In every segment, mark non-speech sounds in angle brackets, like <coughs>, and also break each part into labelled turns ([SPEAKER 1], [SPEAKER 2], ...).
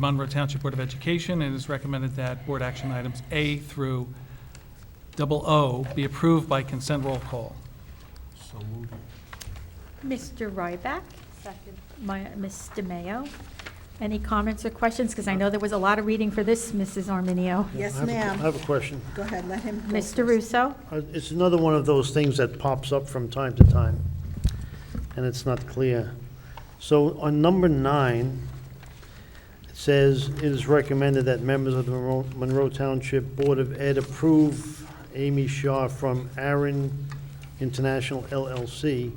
[SPEAKER 1] Monroe Township Board of Education, and it is recommended that board action items A through double O be approved by consent roll call.
[SPEAKER 2] So moved.
[SPEAKER 3] Mr. Ryback,
[SPEAKER 4] Second.
[SPEAKER 3] my, Ms. DeMayo. Any comments or questions? Because I know there was a lot of reading for this, Mrs. Arminio.
[SPEAKER 5] Yes,
[SPEAKER 2] I have a-
[SPEAKER 5] ma'am.
[SPEAKER 2] I have a question.
[SPEAKER 5] Go ahead, let him go
[SPEAKER 3] Mr.
[SPEAKER 5] first.
[SPEAKER 3] Russo?
[SPEAKER 2] Uh, It's another one of those things that pops up from time to time, and it's not clear. So on number nine, it says, "It is recommended that members of the Monroe- Monroe Township Board of Ed approve Amy Shaw from Aaron International LLC,"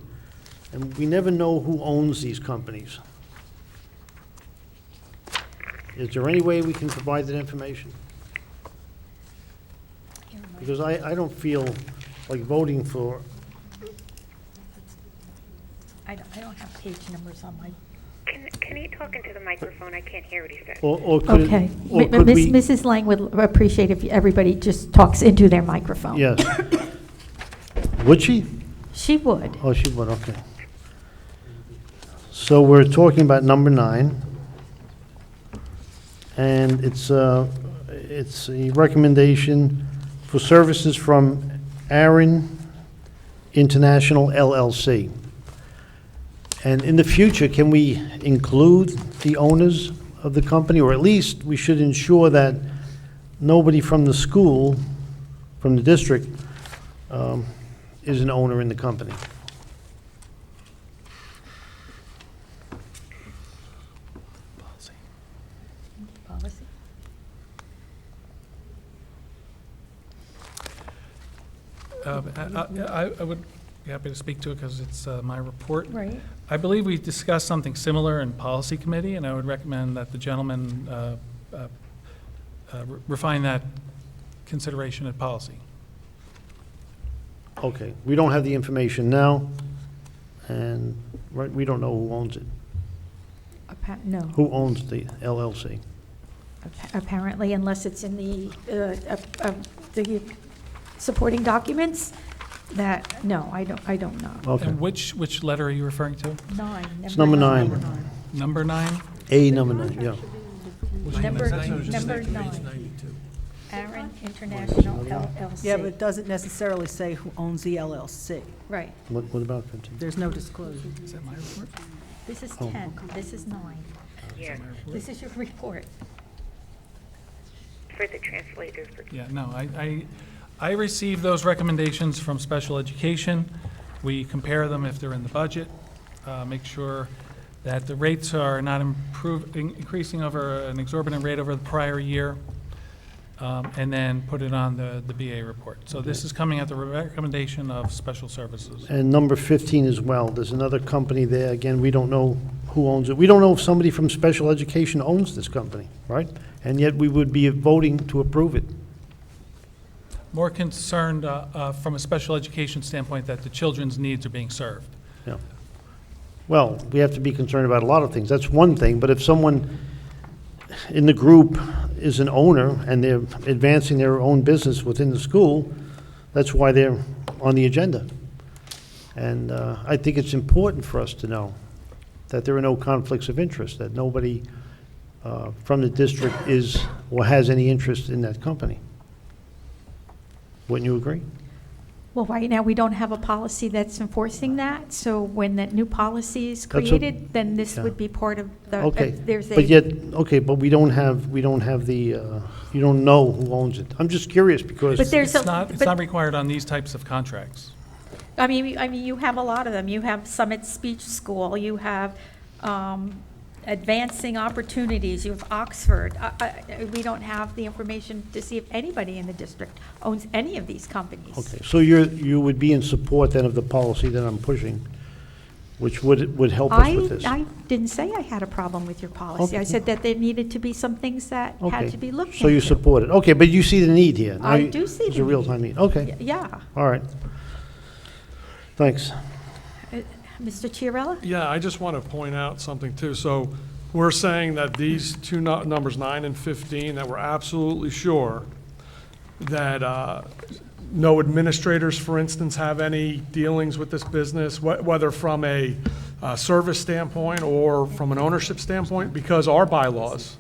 [SPEAKER 2] and we never know who owns these companies. Is there any way we can provide that information? Because I, I don't feel like voting for,
[SPEAKER 3] I don't, I don't have page numbers on my.
[SPEAKER 6] Can, can you talk into the microphone? I can't hear what he said.
[SPEAKER 2] or, or could,
[SPEAKER 3] Okay.
[SPEAKER 2] or
[SPEAKER 3] Mi-
[SPEAKER 2] could
[SPEAKER 3] Miss-
[SPEAKER 2] we?
[SPEAKER 3] Mrs. Lang would appreciate if everybody just talks into their microphone. <coughs>
[SPEAKER 2] Yes. Would she?
[SPEAKER 3] She would.
[SPEAKER 2] Oh, she would, okay. So we're talking about number nine. And it's, uh, it's a recommendation for services from Aaron International LLC. And in the future, can we include the owners of the company? Or at least, we should ensure that nobody from the school, from the district, um, is an owner in the company.
[SPEAKER 3] Policy.
[SPEAKER 1] Uh, I I- I would be happy to speak to it because it's uh, my report.
[SPEAKER 3] Right.
[SPEAKER 1] I believe we discussed something similar in policy committee, and I would recommend that the gentleman uh, uh, uh, refine that consideration at policy.
[SPEAKER 2] Okay, we don't have the information now, and right, we don't know who owns it,
[SPEAKER 3] Appa- No.
[SPEAKER 2] who owns the LLC.
[SPEAKER 3] Appa- Apparently, unless it's in the, uh, up- up- the supporting documents, that, no, I don't, I don't know.
[SPEAKER 2] Okay,
[SPEAKER 1] And which, which letter are you referring to?
[SPEAKER 3] Nine.
[SPEAKER 2] It's number nine.
[SPEAKER 1] Number nine?
[SPEAKER 2] A number nine, yeah.
[SPEAKER 3] Number, number nine. Aaron International LLC.
[SPEAKER 5] Yeah, but it doesn't necessarily say who owns the LLC.
[SPEAKER 3] Right.
[SPEAKER 2] What what about 15?
[SPEAKER 5] There's no disclosure.
[SPEAKER 1] Is that my report?
[SPEAKER 3] This is
[SPEAKER 2] Oh,
[SPEAKER 3] 10, this is nine.
[SPEAKER 6] Yeah,
[SPEAKER 3] This is your report.
[SPEAKER 6] for the translators. for-
[SPEAKER 1] Yeah, no, I, I, I receive those recommendations from special education. We compare them if they're in the budget, uh, make sure that the rates are not improving, increasing over an exorbitant rate over the prior year, um, and then put it on the, the BA report. So this is coming at the recommendation of special services.
[SPEAKER 2] And number 15 as well, there's another company there, again, we don't know who owns it. We don't know if somebody from special education owns this company, right? And yet we would be voting to approve it.
[SPEAKER 1] More concerned, uh, uh, from a special education standpoint, that the children's needs are being served.
[SPEAKER 2] Yeah. Well, we have to be concerned about a lot of things. That's one thing, but if someone in the group is an owner and they're advancing their own business within the school, that's why they're on the agenda. And uh, I think it's important for us to know that there are no conflicts of interest, that nobody uh, from the district is or has any interest in that company. Wouldn't you agree?
[SPEAKER 3] Well, right now, we don't have a policy that's enforcing that, so when that new policy is
[SPEAKER 2] That's what-
[SPEAKER 3] created, then this
[SPEAKER 2] yeah.
[SPEAKER 3] would be part of the,
[SPEAKER 2] Okay.
[SPEAKER 3] uh, there's a.
[SPEAKER 2] But yet, okay, but we don't have, we don't have the, uh, you don't know who owns it. I'm just curious
[SPEAKER 3] But
[SPEAKER 2] because,
[SPEAKER 3] there- There's a-
[SPEAKER 1] It's not, it's
[SPEAKER 3] but-
[SPEAKER 1] not required on these types of contracts.
[SPEAKER 3] I mean, I mean, you have a lot of them. You have Summit Speech School, you have um, Advancing Opportunities, you have Oxford. I- I- We don't have the information to see if anybody in the district owns any of these companies.
[SPEAKER 2] okay, so you're, you would be in support then of the policy that I'm pushing, which would, would help us with
[SPEAKER 3] I,
[SPEAKER 2] this?
[SPEAKER 3] I didn't say I had a problem with your policy. I
[SPEAKER 2] Okay.
[SPEAKER 3] said that there needed to be some things that
[SPEAKER 2] Okay.
[SPEAKER 3] had to be looked
[SPEAKER 2] So you
[SPEAKER 3] into.
[SPEAKER 2] support it. Okay, but you see the need here. Now
[SPEAKER 3] I
[SPEAKER 2] you-
[SPEAKER 3] do see
[SPEAKER 2] It's
[SPEAKER 3] the
[SPEAKER 2] a real-time need. Okay,
[SPEAKER 3] Y- Yeah.
[SPEAKER 2] all right. Thanks.
[SPEAKER 3] Uh, Mr. Chiarella?
[SPEAKER 7] Yeah, I just want to point out something too. So we're saying that these two nu- numbers, nine and 15, that we're absolutely sure that uh, no administrators, for instance, have any dealings with this business, wh- whether from a uh, service standpoint or from an ownership standpoint, because our bylaws